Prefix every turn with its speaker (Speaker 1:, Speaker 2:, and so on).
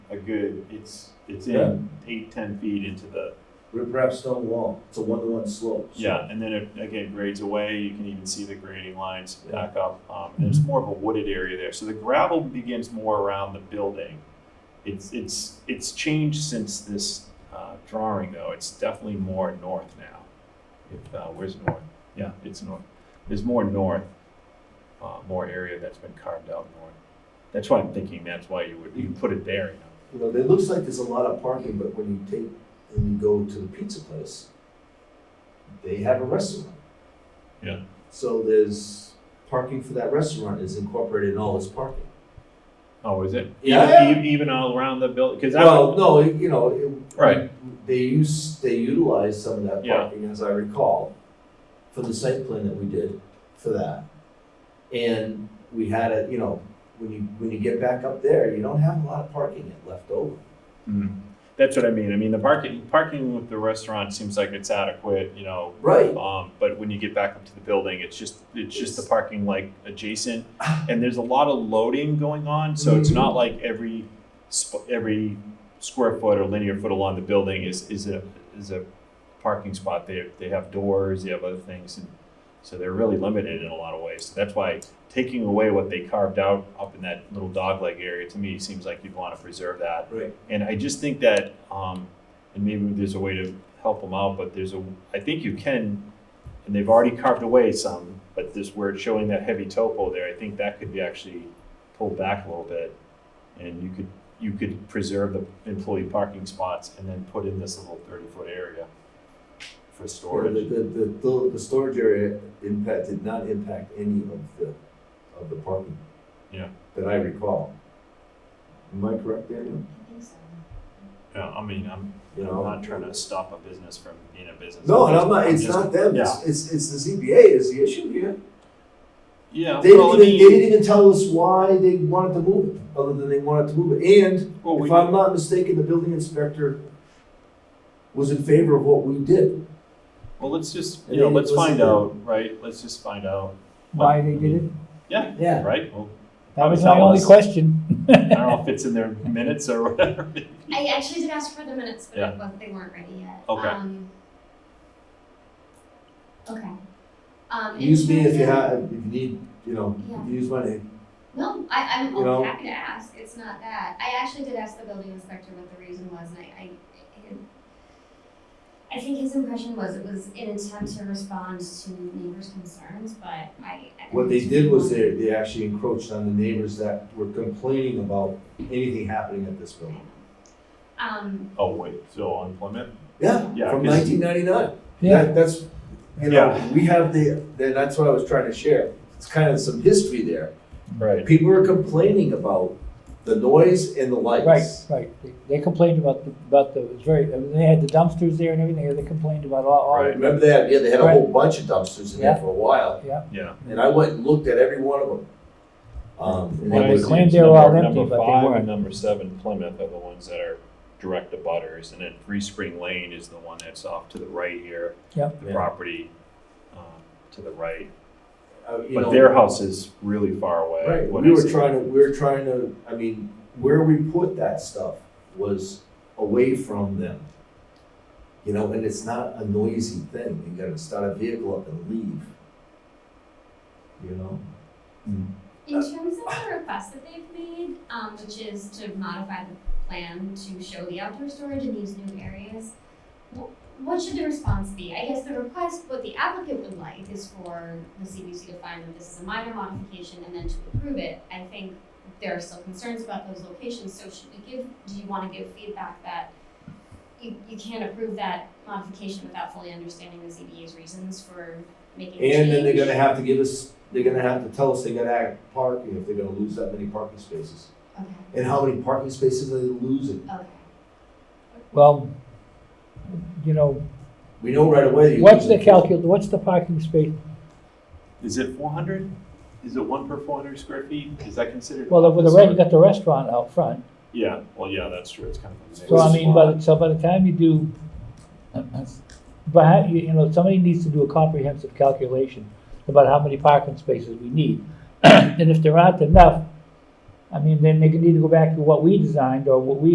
Speaker 1: good, it's, it's in eight, ten feet into the,
Speaker 2: Rip rap stone wall, it's a one-to-one slope. so
Speaker 1: yeah, and then it, again, grades away, you can even see the grading lines back up. Um, and it's more of a wooded area there, so the gravel begins more around the building. It's, it's, it's changed since this, uh, drawing though, it's definitely more north now. If, uh, where's north? Yeah, it's north, there's more north, uh, more area that's been carved out north. That's why I'm thinking that's why you would, you put it there, you know?
Speaker 2: You know, it looks like there's a lot of parking, but when you take, and you go to the pizza place, they have a restaurant.
Speaker 1: Yeah.
Speaker 2: So there's, parking for that restaurant is incorporated in all its parking.
Speaker 1: Oh, is it?
Speaker 2: Yeah.
Speaker 1: Even, even all around the building, because I
Speaker 2: Well,
Speaker 1: would,
Speaker 2: no, it- you know, it.
Speaker 1: Right.
Speaker 2: They use, they utilize some of that
Speaker 1: Yeah.
Speaker 2: parking, as I recall, for the site plan that we did for that. And we had it, you know, when you, when you get back up there, you don't have a lot of parking left over.
Speaker 1: mm, that's what I mean. I mean, the parking, parking with the restaurant seems like it's adequate, you know.
Speaker 2: Right.
Speaker 1: Um, but when you get back up to the building, it's just, it's just the
Speaker 2: It's-
Speaker 1: parking like adjacent. And there's a lot of loading going on, so it's not like every, sp- every square foot or linear foot along the building is, is a, is a parking spot. They, they have doors, they have other things, and so they're really limited in a lot of ways. So that's why taking away what they carved out up in that little dogleg area, to me, seems like you'd want to preserve that.
Speaker 2: Right.
Speaker 1: And I just think that, um, and maybe there's a way to help them out, but there's a, I think you can, and they've already carved away some, but this, where it's showing that heavy topo there, I think that could be actually pulled back a little bit. And you could, you could preserve the employee parking spots and then put in this little thirty-foot area for
Speaker 2: Or the,
Speaker 1: storage.
Speaker 2: the, the, the, the storage area impact, did not impact any of the, of the parking.
Speaker 1: Yeah.
Speaker 2: That I recall. Am I correct, Daniel?
Speaker 1: Yeah, I mean, I'm,
Speaker 2: You
Speaker 1: I'm
Speaker 2: know?
Speaker 1: not trying to stop a business from being a business.
Speaker 2: No, and I'm not, it's
Speaker 1: just-
Speaker 2: not them,
Speaker 1: Yeah,
Speaker 2: it's, it's, it's the ZBA is the issue here.
Speaker 1: yeah.
Speaker 2: They
Speaker 1: well, I
Speaker 2: didn't, even, they
Speaker 1: mean,
Speaker 2: didn't even tell us why they wanted to move it, other than they wanted to move it. And
Speaker 1: well, we-
Speaker 2: if I'm not mistaken, the building inspector was in favor of what we did.
Speaker 1: Well, let's just,
Speaker 2: And
Speaker 1: you know,
Speaker 2: then
Speaker 1: let's
Speaker 2: it was-
Speaker 1: find out, right? Let's just find out.
Speaker 3: Why they did it?
Speaker 1: Yeah,
Speaker 2: Yeah.
Speaker 1: right? Well,
Speaker 3: That was
Speaker 1: Tell
Speaker 3: my only
Speaker 1: us.
Speaker 3: question.
Speaker 1: I don't know if it's in their minutes or whatever.
Speaker 4: I actually did ask for the minutes, but
Speaker 1: Yeah.
Speaker 4: it was, they weren't ready yet.
Speaker 1: Okay.
Speaker 4: Um, okay. Um, in
Speaker 2: Use me if you
Speaker 4: terms of-
Speaker 2: have, if you need, you know,
Speaker 4: Yeah.
Speaker 2: use my name.
Speaker 4: No, I, I'm
Speaker 2: You know?
Speaker 4: happy to ask. It's not that. I actually did ask the building inspector what the reason was, and I, I, I think his impression was it was an attempt to respond to neighbors' concerns, but I. I
Speaker 2: What they did was they, they actually encroached on the neighbors that were complaining about anything happening at this building.
Speaker 4: Um,
Speaker 1: Oh, wait, so on Plymouth?
Speaker 2: Yeah,
Speaker 1: Yeah,
Speaker 2: from
Speaker 1: 'cause-
Speaker 2: nineteen ninety-nine.
Speaker 3: Yeah.
Speaker 2: That, that's, you know,
Speaker 1: Yeah.
Speaker 2: we have the, then that's what I was trying to share. It's kind of some history there.
Speaker 1: Right.
Speaker 2: People were complaining about the noise and the
Speaker 3: Right,
Speaker 2: lights.
Speaker 3: right. They- They complained about, the about the, it was very, I mean, they had the dumpsters there and everything, and they complained about all, all.
Speaker 1: Right.
Speaker 2: Remember that? Yeah, they had a whole bunch of dumpsters in there
Speaker 3: Yeah.
Speaker 2: for a while,
Speaker 1: Yeah.
Speaker 2: and I went and looked at every one of them. Um, and
Speaker 3: Well,
Speaker 2: that
Speaker 3: they
Speaker 2: was-
Speaker 3: claimed they were all
Speaker 1: Number-
Speaker 3: empty,
Speaker 1: number
Speaker 3: but they
Speaker 1: five and
Speaker 3: weren't.
Speaker 1: Number seven Plymouth are the ones that are direct abutters, and then Three Spring Lane is the one that's off to the right here.
Speaker 3: Yep.
Speaker 1: The
Speaker 2: Yeah.
Speaker 1: property, um, to the right.
Speaker 2: uh, you
Speaker 1: But
Speaker 2: know,
Speaker 1: their house is really far away.
Speaker 2: Right,
Speaker 1: when
Speaker 2: we
Speaker 1: I
Speaker 2: were
Speaker 1: say-
Speaker 2: trying to, we were trying to, I mean, where we put that stuff was away from them. You know, and it's not a noisy thing, you gotta start a vehicle up and leave. You know?
Speaker 4: in terms of the request that they've made, um, which is to modify the plan to show the outdoor storage in these new areas, wh- what should the response be? I guess the request, what the applicant would like is for the CBC to find that this is a minor modification and then to approve it. I think there are still concerns about those locations, so should we give, do you wanna give feedback that you, you can't approve that modification without fully understanding the ZBA's reasons for making the change?
Speaker 2: And then they're gonna have to give us, they're gonna have to tell us they gotta add parking if they're gonna lose that many parking spaces.
Speaker 4: Okay,
Speaker 2: And how many parking spaces are they losing?
Speaker 4: okay.
Speaker 3: Well, you know,
Speaker 2: We know right away. you're
Speaker 3: what's the
Speaker 2: losing-
Speaker 3: calcul, what's the parking space?
Speaker 1: Is it four hundred? Is it one per four hundred square feet? Is that considered?
Speaker 3: Well, with the
Speaker 1: office
Speaker 3: red,
Speaker 1: or-
Speaker 3: you got the restaurant out front.
Speaker 1: Yeah, well, yeah, that's true, it's kind of. a
Speaker 3: So I
Speaker 1: mix.
Speaker 3: mean, by, the- so by the time you do, but how- you, you know, somebody needs to do a comprehensive calculation about how many parking spaces we need. And if there aren't enough, I mean, then they need to go back to what we designed or what we